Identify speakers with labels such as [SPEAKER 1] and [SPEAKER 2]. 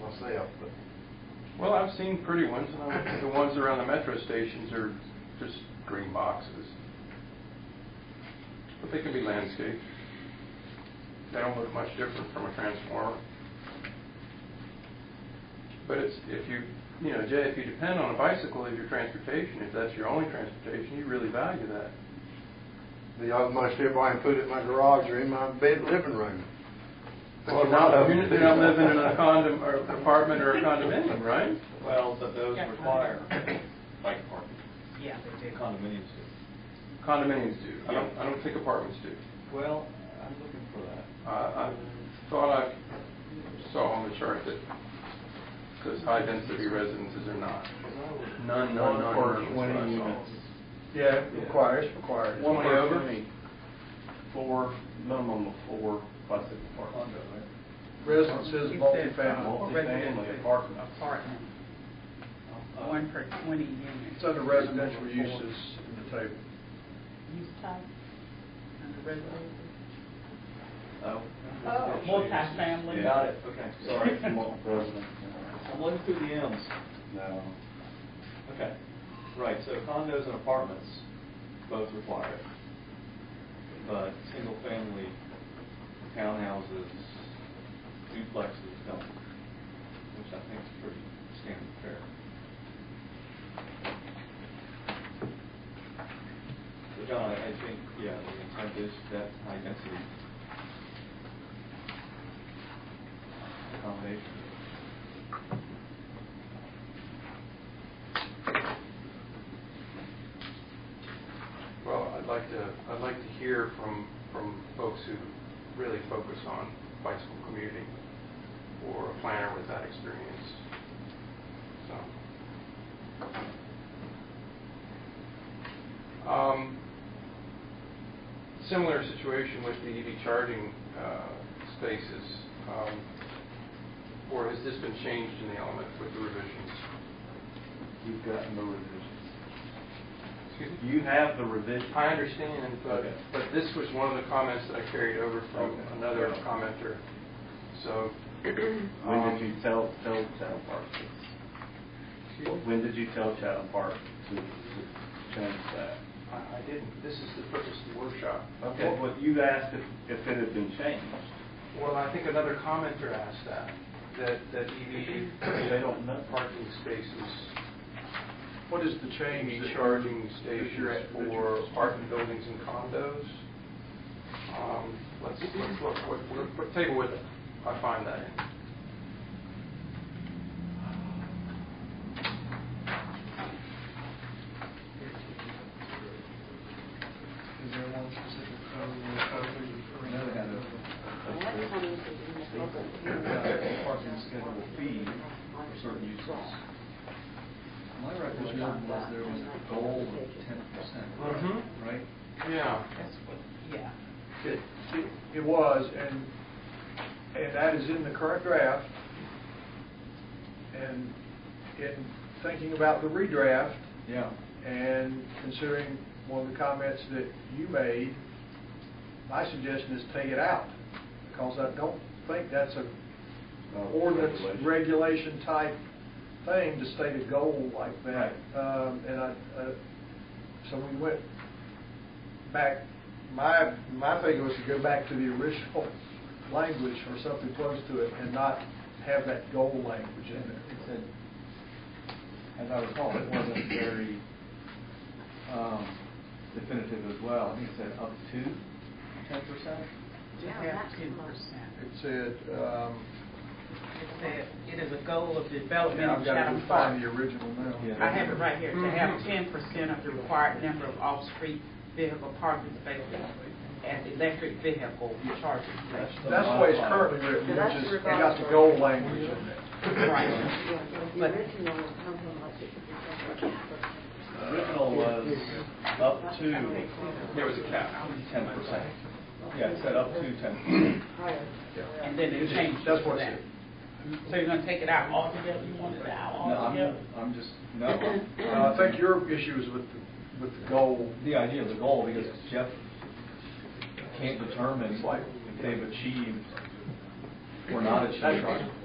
[SPEAKER 1] myself, but
[SPEAKER 2] Well, I've seen pretty ones, and I- the ones around the metro stations are just green boxes. But they can be landscaped. They don't look much different from a transformer. But it's, if you, you know, Jay, if you depend on a bicycle as your transportation, if that's your only transportation, you really value that.
[SPEAKER 1] the utmost if I can put it in my garage or in my bed, living room.
[SPEAKER 2] Well, now, you're not living in a condom, or apartment or a condominium, right?
[SPEAKER 3] Well, but those
[SPEAKER 4] Yeah.
[SPEAKER 3] require bike parking.
[SPEAKER 4] Yeah, they do.
[SPEAKER 3] Condominiums
[SPEAKER 2] Condominiums do. I don't, I don't think apartments do.
[SPEAKER 3] Well, I'm looking for that.
[SPEAKER 2] I I thought I saw on the chart that says high-density residences are not. None, none, none.
[SPEAKER 5] Or
[SPEAKER 2] none was what I
[SPEAKER 5] 20
[SPEAKER 2] saw.
[SPEAKER 5] units.
[SPEAKER 6] Yeah, it requires, requires.
[SPEAKER 2] One way over?
[SPEAKER 5] Four, minimum of four bicycle parks.
[SPEAKER 3] Condo, right?
[SPEAKER 6] Residences,
[SPEAKER 4] You said, uh,
[SPEAKER 6] multifamily.
[SPEAKER 5] Multifamily apartments.
[SPEAKER 4] Apartment,
[SPEAKER 3] Uh,
[SPEAKER 4] one per 20 units.
[SPEAKER 6] It's under residential uses in the table.
[SPEAKER 4] Use type, under residential.
[SPEAKER 3] Oh.
[SPEAKER 4] Oh, multifamily.
[SPEAKER 3] Got it, okay, sorry.
[SPEAKER 5] Multi-resident.
[SPEAKER 3] I'm looking through the M's.
[SPEAKER 5] No.
[SPEAKER 3] Okay, right, so condos and apartments both require it. But single-family townhouses, duplexes don't, which I think is pretty standard fare. So John, I I think, yeah, the intent is that high density accommodation.
[SPEAKER 2] Well, I'd like to, I'd like to hear from, from folks who really focus on bicycle commuting or a planner with that experience. So. Um, Similar situation with the EV charging uh, spaces. um, Or has this been changed in the element with the revisions?
[SPEAKER 5] You've got no revisions.
[SPEAKER 2] Excuse me?
[SPEAKER 5] You have the revision.
[SPEAKER 2] I understand, but,
[SPEAKER 5] Okay.
[SPEAKER 2] but this was one of the comments that I carried over from
[SPEAKER 5] Okay.
[SPEAKER 2] another
[SPEAKER 5] Yeah.
[SPEAKER 2] commenter. So, Um,
[SPEAKER 5] When
[SPEAKER 7] Um,
[SPEAKER 5] did you tell, tell Chatham Park? this? When did you tell Chatham Park to to change that?
[SPEAKER 2] I I didn't, this is the purpose of the workshop.
[SPEAKER 5] Okay, well, you asked if, if it had been changed.
[SPEAKER 2] Well, I think another commenter asked that, that, that EV.
[SPEAKER 5] They don't know.
[SPEAKER 2] Parking spaces,
[SPEAKER 6] What is the change?
[SPEAKER 2] EV
[SPEAKER 6] that-
[SPEAKER 2] charging
[SPEAKER 6] that you're-
[SPEAKER 2] stations
[SPEAKER 6] that
[SPEAKER 2] for
[SPEAKER 6] you're-
[SPEAKER 2] apartment buildings and condos. Um, Let's, let's look, what, what- what table would I find that in?
[SPEAKER 6] Is there one specific code or code that you're referring
[SPEAKER 3] Parking schedule fee for certain uses.
[SPEAKER 7] My recollection was there was a goal of ten percent,
[SPEAKER 2] Mhm.
[SPEAKER 7] right?
[SPEAKER 2] Yeah.
[SPEAKER 4] That's what, yeah.
[SPEAKER 6] It- it- It was, and, and that is in the current draft. And in thinking about the redraft,
[SPEAKER 7] Yeah.
[SPEAKER 6] and considering one of the comments that you made, my suggestion is take it out, because I don't think that's a
[SPEAKER 5] Not a
[SPEAKER 6] Uh, ordinance
[SPEAKER 5] regulation.
[SPEAKER 6] regulation type thing to state a goal like that.
[SPEAKER 5] Right.
[SPEAKER 6] Um, And I, uh, so we went back, my, my thing was to go back to the original language or something close to it and not have that goal language in there.
[SPEAKER 7] It said, as I recall, it wasn't very um, definitive as well. I think it said up to ten percent.
[SPEAKER 4] To have 10%.
[SPEAKER 6] It said, um,
[SPEAKER 4] It said, it is a goal of development
[SPEAKER 6] yeah,
[SPEAKER 4] of
[SPEAKER 6] I've got to
[SPEAKER 4] Chatham Park.
[SPEAKER 6] find Mm-hmm. the original now.
[SPEAKER 7] Yeah.
[SPEAKER 4] I have it right here, to have
[SPEAKER 2] Mhm.
[SPEAKER 4] ten percent of the required number of off-street vehicle parking spaces and electric vehicle charging stations.
[SPEAKER 6] That's the way it's currently written,
[SPEAKER 8] That's
[SPEAKER 6] which is, it
[SPEAKER 8] revised
[SPEAKER 6] got the
[SPEAKER 8] version.
[SPEAKER 6] goal language in there.
[SPEAKER 4] Right.
[SPEAKER 8] Yeah, the original was something like fifty percent.
[SPEAKER 3] Original was
[SPEAKER 5] Up to
[SPEAKER 2] There was a cap.
[SPEAKER 5] ten percent.
[SPEAKER 3] Yeah, it said up to ten percent.
[SPEAKER 4] And then it changed
[SPEAKER 6] That's
[SPEAKER 4] to
[SPEAKER 6] what
[SPEAKER 4] that.
[SPEAKER 6] it
[SPEAKER 4] So you're gonna take it out altogether, you want it out
[SPEAKER 7] No, I'm,
[SPEAKER 4] altogether?
[SPEAKER 7] I'm just, no,
[SPEAKER 6] said. Uh, I think your issue is with, the- with the goal.
[SPEAKER 7] the idea of the goal, because Jeff can't determine if they've achieved or not achieved